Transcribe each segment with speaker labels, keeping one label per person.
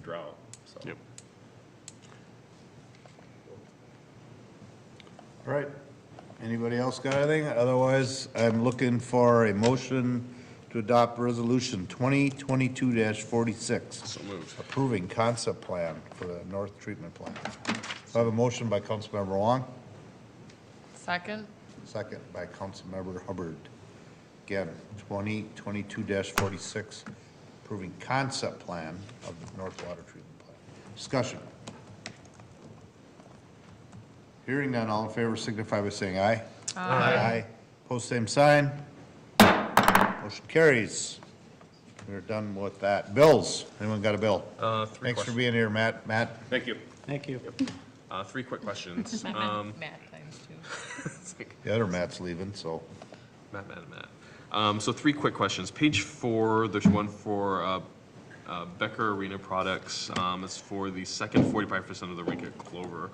Speaker 1: drought, so.
Speaker 2: Yep.
Speaker 3: All right. Anybody else got anything? Otherwise, I'm looking for a motion to adopt Resolution 2022-46.
Speaker 2: So moved.
Speaker 3: Approving concept plan for the North Treatment Plant. So I have a motion by Councilmember Wong,
Speaker 4: Second?
Speaker 3: second by Councilmember Hubbard. Again, 2022-46, approving concept plan of the North Water Treatment Plant. Discussion. Hearing none, all in favor signify by saying aye. Aye. Post same sign. Motion carries. We're done with that. Bills, anyone got a bill?
Speaker 1: Uh, three
Speaker 3: Thanks for
Speaker 1: questions.
Speaker 3: being here, Matt. Matt,
Speaker 1: Thank you.
Speaker 5: Thank you.
Speaker 1: Uh, three quick questions.
Speaker 4: Matt
Speaker 1: Um,
Speaker 4: times two.
Speaker 1: it's like-
Speaker 3: the other Matt's leaving, so.
Speaker 1: Matt, Matt, Matt. Um, so three quick questions. Page four, there's one for, uh, uh, Becker Arena Products. Um, it's for the second forty-five percent of the rink at Clover.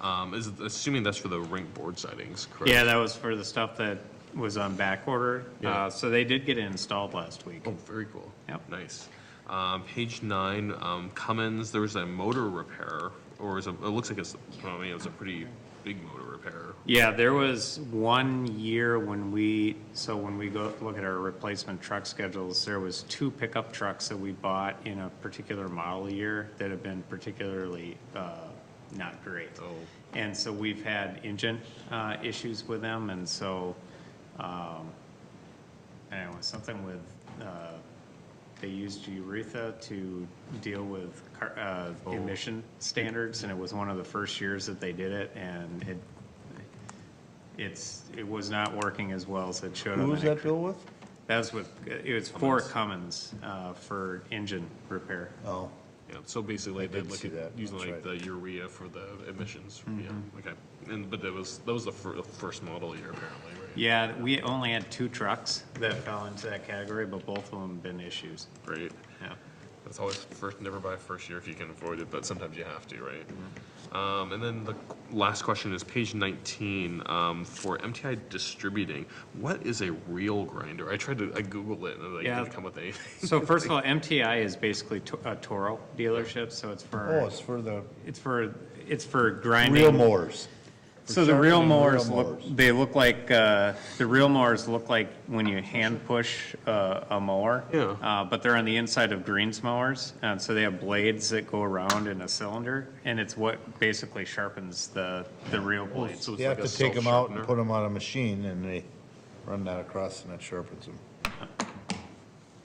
Speaker 1: Um, is, assuming that's for the rink board sidings, correct?
Speaker 5: Yeah, that was for the stuff that was on back order.
Speaker 1: Yeah.
Speaker 5: Uh, so they did get it installed last week.
Speaker 1: Oh, very cool.
Speaker 5: Yep.
Speaker 1: Nice. Um, page nine, um, Cummins, there was a motor repair, or is it, it looks like it's, I mean, it was a pretty big motor repair.
Speaker 5: Yeah, there was one year when we, so when we go look at our replacement truck schedules, there was two pickup trucks that we bought in a particular model year that have been particularly, uh, not great.
Speaker 1: Oh.
Speaker 5: And so we've had engine, uh, issues with them, and so, um, anyway, something with, uh, they used urethra to deal with car, uh,
Speaker 3: Oh.
Speaker 5: emission standards, and it was one of the first years that they did it, and it, it's, it was not working as well as it should have.
Speaker 3: Who
Speaker 5: and
Speaker 3: was
Speaker 5: it
Speaker 3: that
Speaker 5: cre-
Speaker 3: bill with?
Speaker 5: That was with, it was for Cummins, uh, for engine repair.
Speaker 3: Oh,
Speaker 1: Yeah, so basically they
Speaker 3: did
Speaker 1: look
Speaker 3: see
Speaker 1: at
Speaker 3: that,
Speaker 1: using
Speaker 3: that's
Speaker 1: like the
Speaker 3: right. Mm-hmm.
Speaker 1: urea for the emissions, yeah, okay. And, but that was, that was the fir- the first model year apparently, right?
Speaker 5: Yeah, we only had two trucks that fell into that category, but both of them been issues,
Speaker 1: Great,
Speaker 5: yeah.
Speaker 1: that's always first, never buy first year if you can avoid it, but sometimes you have to, right?
Speaker 3: Mm-hmm.
Speaker 1: Um, and then the qu- last question is page nineteen, um, for MTI distributing, what is a reel grinder? I tried to, I Googled it and it like,
Speaker 5: Yeah.
Speaker 1: didn't come with anything.
Speaker 5: So first of all, MTI is basically to- a Toro dealership, so it's
Speaker 3: oh,
Speaker 5: for,
Speaker 3: it's for the
Speaker 5: it's for, it's for grinding.
Speaker 3: real mowers.
Speaker 5: So the real
Speaker 3: sharpening
Speaker 5: mowers
Speaker 3: real
Speaker 5: look,
Speaker 3: mowers.
Speaker 5: they look like, uh, the real mowers look like when you hand push uh, a mower.
Speaker 1: Yeah.
Speaker 5: Uh, But they're on the inside of greens mowers, and so they have blades that go around in a cylinder, and it's what basically sharpens the, the real blades.
Speaker 1: So it's
Speaker 3: You have
Speaker 1: like a
Speaker 3: to take them out and
Speaker 1: self-sharpener?
Speaker 3: put them on a machine and they run that across and it sharpens them.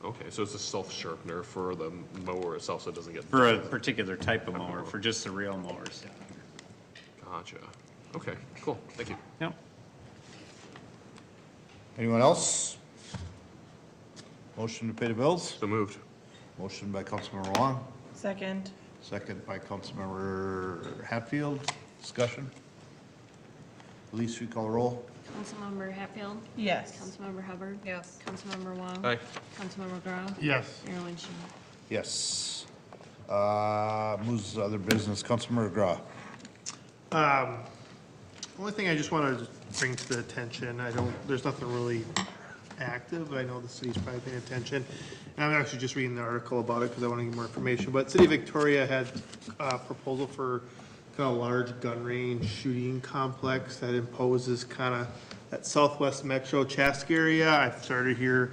Speaker 1: Okay, so it's a self-sharpener for the mower itself, so it doesn't get.
Speaker 5: For a particular type of mower, for just the real mowers.
Speaker 1: Gotcha, okay, cool, thank you.
Speaker 5: Yep.
Speaker 3: Anyone else? Motion to pay the bills?
Speaker 1: So moved.
Speaker 3: Motion by Councilmember Wong,
Speaker 6: Second.
Speaker 3: second by Councilmember Hatfield. Discussion? Police recall roll?
Speaker 7: Councilmember Hatfield?
Speaker 6: Yes.
Speaker 7: Councilmember Hubbard?
Speaker 4: Yes.
Speaker 7: Councilmember Wong?
Speaker 1: Aye.
Speaker 7: Councilmember Grau?
Speaker 3: Yes.
Speaker 7: Mayor Lynch?
Speaker 3: Yes. Uh, moves to other business. Councilmember McGraw.
Speaker 8: Only thing I just want to bring to the attention, I don't, there's nothing really active, I know the city's probably paying attention. And I'm actually just reading the article about it because I want to get more information, but City of Victoria had a proposal for kind of large gun range shooting complex that imposes kind of that southwest metro Chask area. I've started here,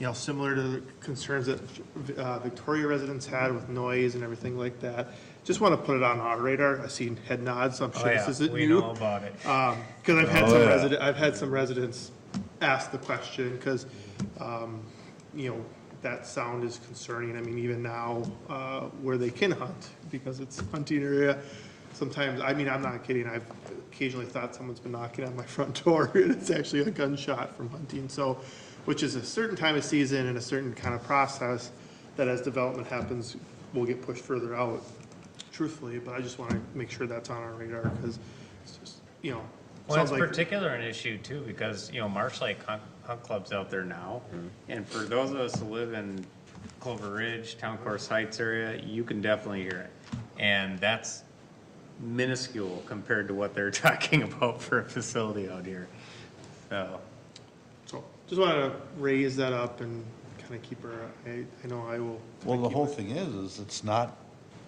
Speaker 8: you know, similar to the concerns that uh, Victoria residents had with noise and everything like that. Just want to put it on our radar, I've seen head nods, so I'm
Speaker 5: Oh,
Speaker 8: sure this isn't new.
Speaker 5: about it.
Speaker 8: Um 'cause because I've had
Speaker 3: Oh,
Speaker 8: some
Speaker 3: yeah.
Speaker 8: resident, I've had some residents ask the question, because, um, you know, that sound is concerning, I mean, even now, uh, where they can hunt, because it's a hunting area, sometimes, I mean, I'm not kidding, I've occasionally thought someone's been knocking on my front door, and it's actually a gunshot from hunting, so, which is a certain time of season and a certain kind of process, that as development happens, will get pushed further out, truthfully, but I just want to make sure that's on our radar, because it's just, you know,
Speaker 5: Well, it's
Speaker 8: sounds like
Speaker 5: particular an issue too, because, you know, Marsh Lake Hunt, Hunt Club's out there now. And for those of us who live in Clover Ridge, Town Course Heights area, you can definitely hear it. And that's minuscule compared to what they're talking about for a facility out here. So,
Speaker 8: So, just want to raise that up and kind of keep her, I, I know I will.
Speaker 3: Well, the whole thing is, is it's not